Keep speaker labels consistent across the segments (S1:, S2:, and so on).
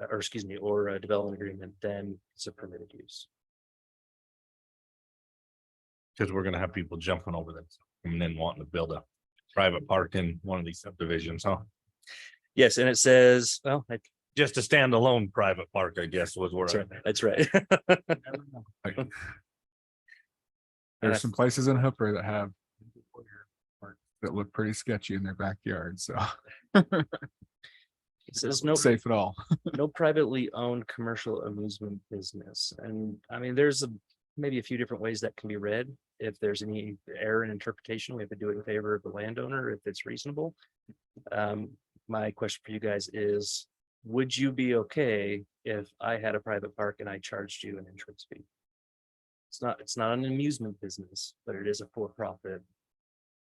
S1: uh, or excuse me, or a development agreement, then it's a permitted use.
S2: Cause we're gonna have people jumping over this and then wanting to build a private park in one of these subdivisions, huh?
S1: Yes, and it says, well, I-
S2: Just a standalone private park, I guess, was where.
S1: that's
S2: I-
S1: right, that's right.
S3: There's some places in Hooper that have that look pretty sketchy in their backyard, so
S1: It says no,
S3: safe at all.
S1: no privately owned commercial amusement business. And I mean, there's a, maybe a few different ways that can be read. If there's any error in interpretation, we have to do it in favor of the landowner if it's reasonable. Um, my question for you guys is, would you be okay if I had a private park and I charged you an entrance fee? It's not, it's not an amusement business, but it is a for-profit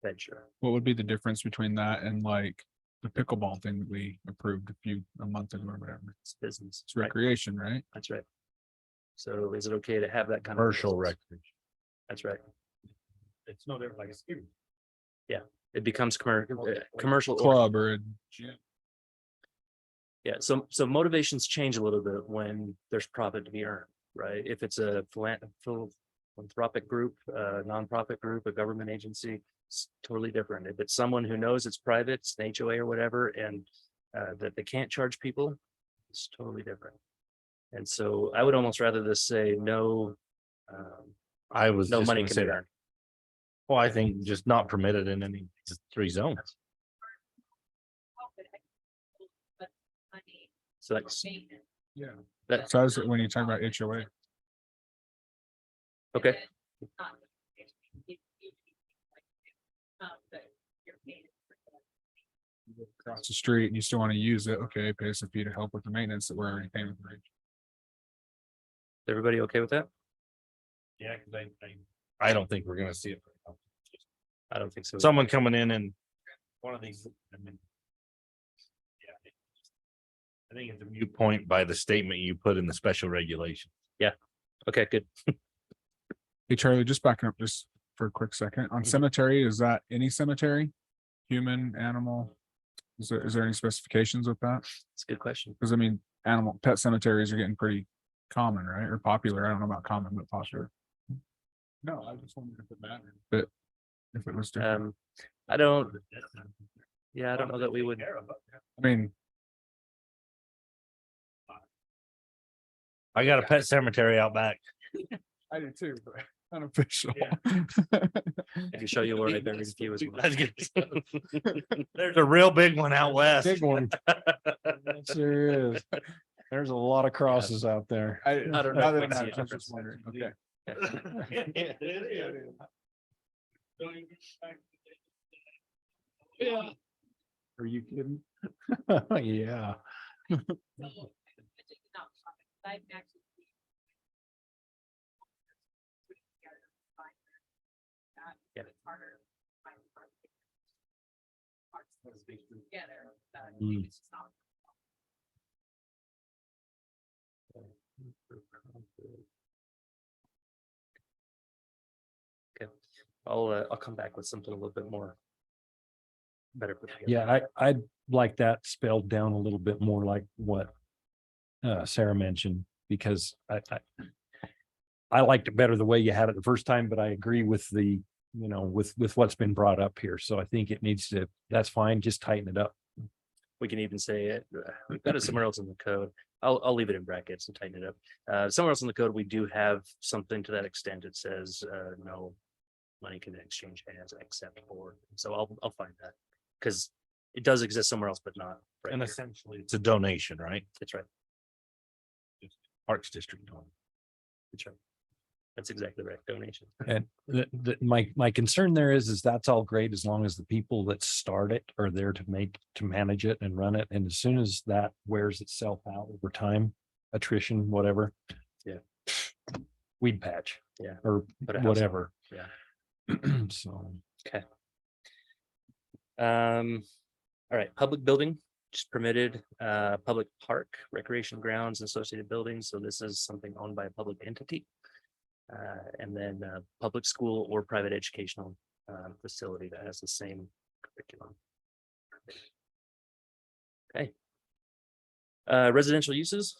S1: venture.
S3: What would be the difference between that and like the pickleball thing that we approved a few, a month ago or whatever?
S1: It's business,
S3: It's
S1: right?
S3: recreation, right?
S1: That's right. So is it okay to have that kind of?
S2: Commercial
S1: business?
S2: record.
S1: That's right.
S2: It's no different like a ski.
S1: It becomes commercial, commercial. or-
S3: Club or a gym.
S1: Yeah, so, so motivations change a little bit when there's profit to be earned, right? If it's a philan- phil- philanthropic group, a nonprofit group, a government agency, it's totally different. If it's someone who knows it's private, it's an HOA or whatever, and uh, that they can't charge people, it's totally different. And so I would almost rather this say no, um,
S2: I was.
S1: no
S2: just
S1: money
S2: gonna
S1: can be
S2: say,
S1: earned.
S2: Well, I think just not permitted in any three zones.
S1: So that's,
S3: Yeah.
S1: That-
S3: So I was, when you talk about HOA,
S1: okay,
S3: across the street and you still want to use it, okay, pay us a fee to help with the maintenance that we're already paying. for.
S1: everybody okay with that?
S2: Yeah, cause I, I. I don't think we're gonna see it.
S1: I don't think so.
S2: Someone coming in and. One of these, I mean. Yeah. I think it's a viewpoint by the statement you put in the special regulation.
S1: Okay, good.
S3: Hey Charlie, just backing up just for a quick second, on cemetery, is that any cemetery? Human, animal? Is there, is there any specifications with that?
S1: It's a good question.
S3: Cause I mean, animal, pet cemeteries are getting pretty common, right? Or popular. I don't know about common, but popular. No, I just wondered if it mattered. But if it was, different.
S1: Um, I don't, yeah, I don't know that we would.
S3: I mean,
S2: I got a pet cemetery out back.
S3: I do too, but unofficial.
S1: I can show you where I buried a few as well.
S2: That's There's a real big one out west.
S4: Big one. Sure is. There's a lot of crosses out there.
S3: I
S1: I don't know
S3: other
S1: if
S3: than
S1: it's
S3: that,
S1: the
S3: I was just
S1: difference.
S3: wondering. Okay.
S4: Yeah. Are you kidding? Yeah. Mm.
S1: Okay, I'll, uh, I'll come back with something a little bit more. Better. put together.
S4: Yeah, I, I'd like that spelled down a little bit more like what uh, Sarah mentioned, because I, I I liked it better the way you had it the first time, but I agree with the, you know, with, with what's been brought up here. So I think it needs to, that's fine, just tighten it up.
S1: We can even say it, uh, we've got it somewhere else in the code. I'll, I'll leave it in brackets and tighten it up. Uh, somewhere else in the code, we do have something to that extent. It says, uh, no. Money can exchange hands except for, so I'll, I'll find that. Cause it does exist somewhere else, but not. right
S2: And
S1: here.
S2: essentially, it's a donation, right?
S1: That's right.
S2: Parks District. donation.
S1: That's right. That's exactly right. Donation.
S4: And the, the, my, my concern there is, is that's all great as long as the people that start it are there to make, to manage it and run it. And as soon as that wears itself out over time, attrition, whatever.
S1: Yeah.
S4: Weed patch.
S1: Yeah.
S4: Or
S1: Put a house up.
S4: whatever.
S1: Yeah.
S4: So,
S1: Um, all right, public building, just permitted, uh, public park, recreation grounds, and associated buildings, so this is something owned by a public entity. Uh, and then, uh, public school or private educational, uh, facility that has the same curriculum. Okay. Uh, residential uses,